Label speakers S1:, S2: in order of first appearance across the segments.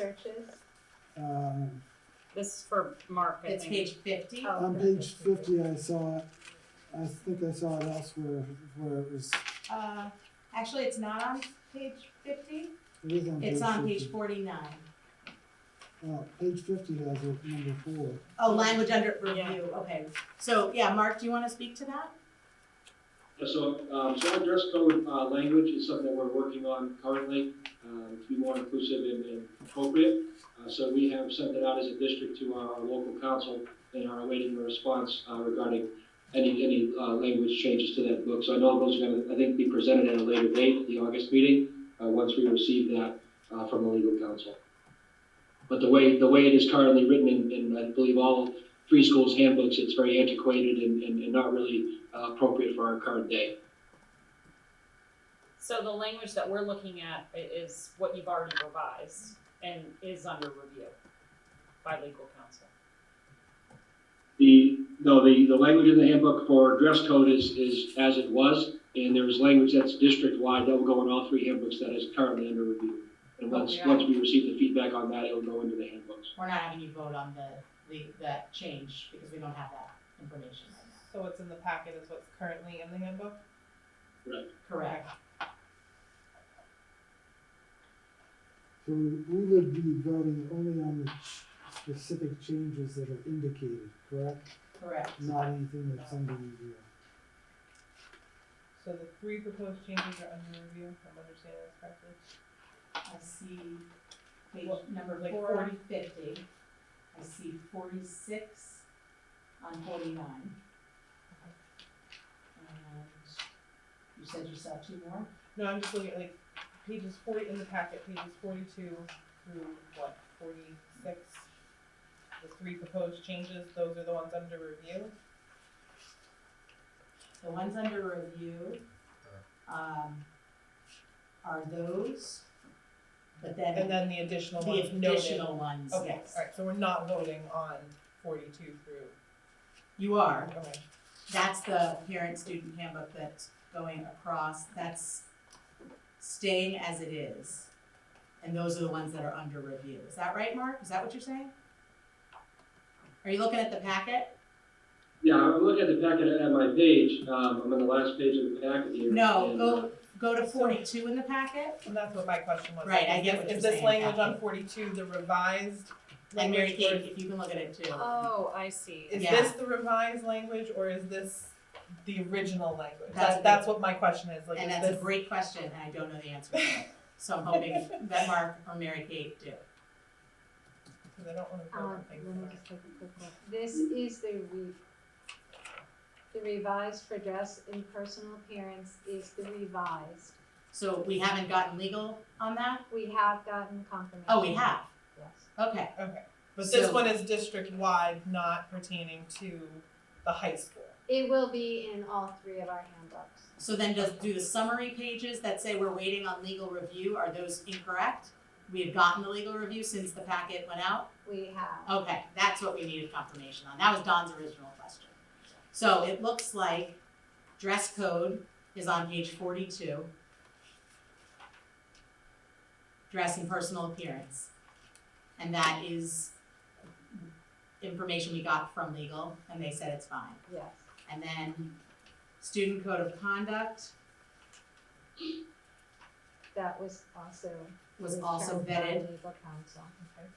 S1: searches?
S2: Um,
S3: This is for Mark, I
S4: It's
S3: think.
S4: page fifty.
S1: Oh,
S2: on
S1: for-
S2: page fifty, I saw it, I think I saw it elsewhere where it was,
S4: Uh, actually, it's not on page fifty,
S2: it is on page fifty.
S4: it's on page forty-nine.
S2: Uh, page fifty has it, number four.
S4: Oh, language under
S3: Yeah.
S4: review, okay. So, yeah, Mark, do you wanna speak to that?
S5: Yeah, So, um, solid dress code, uh, language is something that we're working on currently, um, to be more inclusive and, and appropriate. Uh, so we have sent that out as a district to our, our local council and are awaiting a response, uh, regarding any, any, uh, language changes to that book. So I know those are gonna, I think, be presented at a later date, the August meeting, uh, once we receive that, uh, from the legal council. But the way, the way it is currently written in, in, I believe, all three schools' handbooks, it's very antiquated and, and, and not really uh, appropriate for our current day.
S3: So the language that we're looking at i- is what you've already revised and is under review by legal counsel.
S5: The, no, the, the language in the handbook for dress code is, is as it was, and there is language that's district-wide that will go in all three handbooks that is currently under review. And once,
S4: Okay.
S5: once we receive the feedback on that, it'll go into the handbooks.
S4: We're not having you vote on the, the, that change, because we don't have that information right now.
S6: So what's in the packet is what's currently in the handbook?
S4: Correct.
S2: So we would be voting only on the specific changes that are indicated, correct?
S4: Correct.
S2: Not anything that's under review.
S6: So the three proposed changes are under review, if I'm understanding this correctly.
S4: I see page
S6: What,
S4: number like
S6: like four?
S4: forty fifty. I see forty-six on forty-nine. And you said you saw two more?
S6: No, I'm just looking at like pages forty, in the packet, pages forty-two through what, forty-six? The three proposed changes, those are the ones under review?
S4: The ones under review, um, are those, but then
S6: And then the additional
S4: the
S6: ones noted?
S4: additional ones,
S6: Okay,
S4: yes.
S6: alright, so we're not voting on forty-two through,
S4: You are,
S6: okay,
S4: that's the parent-student handbook that's going across, that's staying as it is. And those are the ones that are under review. Is that right, Mark? Is that what you're saying? Are you looking at the packet?
S5: Yeah, I'm looking at the packet at my page, um, I'm on the last page of the packet here.
S4: No,
S5: and, uh,
S4: go, go to forty-two in the packet.
S6: and that's what my question was.
S4: Right, I get what you're
S6: Is this
S4: saying,
S6: language
S4: yeah.
S6: on forty-two, the revised
S4: And Mary
S6: language for
S4: Kate, if you can look at it too.
S3: Oh, I see.
S6: Is
S4: Yeah.
S6: this the revised language or is this the original language?
S4: That's a
S6: That, that's what my question is, like,
S4: And
S6: is
S4: that's a
S6: this,
S4: great question, and I don't know the answer to it. So I'm hoping that Mark or Mary Kate do.
S6: because I don't wanna go
S1: Um,
S6: on
S1: let
S6: things.
S1: me just take a quick look. This is the re, the revised for dress and personal appearance is the revised.
S4: So we haven't gotten legal on that?
S1: We have gotten confirmation.
S4: Oh, we have,
S1: Yes.
S4: okay.
S6: But this
S4: So-
S6: one is district-wide, not pertaining to the high school.
S1: It will be in all three of our handbooks.
S4: So then does, do the summary pages that say we're waiting on legal review, are those incorrect? We have gotten the legal review since the packet went out?
S1: We have,
S4: Okay, that's what we needed confirmation on. That was Don's original question. So it looks like dress code is on page forty-two. Dress and personal appearance. And that is information we got from legal and they said it's fine.
S1: yes.
S4: And then student code of conduct
S1: That was also.
S4: was also
S1: determined by
S4: vetted.
S1: Legal counsel.
S6: Okay.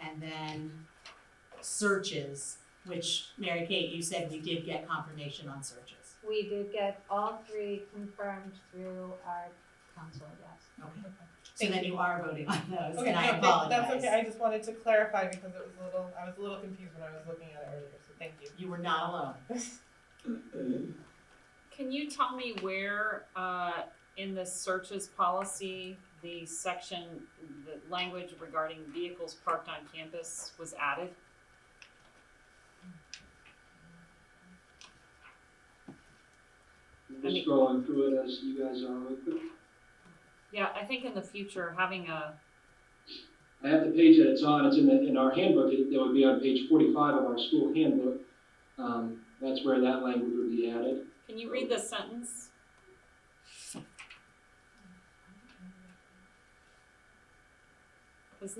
S4: And then searches, which Mary Kate, you said we did get confirmation on searches.
S1: We did get all three confirmed through our counsel, yes.
S4: Okay. So
S6: Thank
S4: then you are voting on those, and
S6: Okay,
S4: I
S6: no, thank-
S4: apologize.
S6: that's okay, I just wanted to clarify because it was a little, I was a little confused when I was looking at it earlier, so thank you.
S4: You were not alone.
S3: Can you tell me where, uh, in the searches policy, the section, the language regarding vehicles parked on campus was added?
S5: I'm Just scrolling through it as you guys are, real quick.
S3: Yeah, I think in the future, having a,
S5: I have the page that it's on, it's in, the, in our handbook, it, it would be on page forty-five of our school handbook. Um, that's where that language would be added.
S3: can you read the sentence?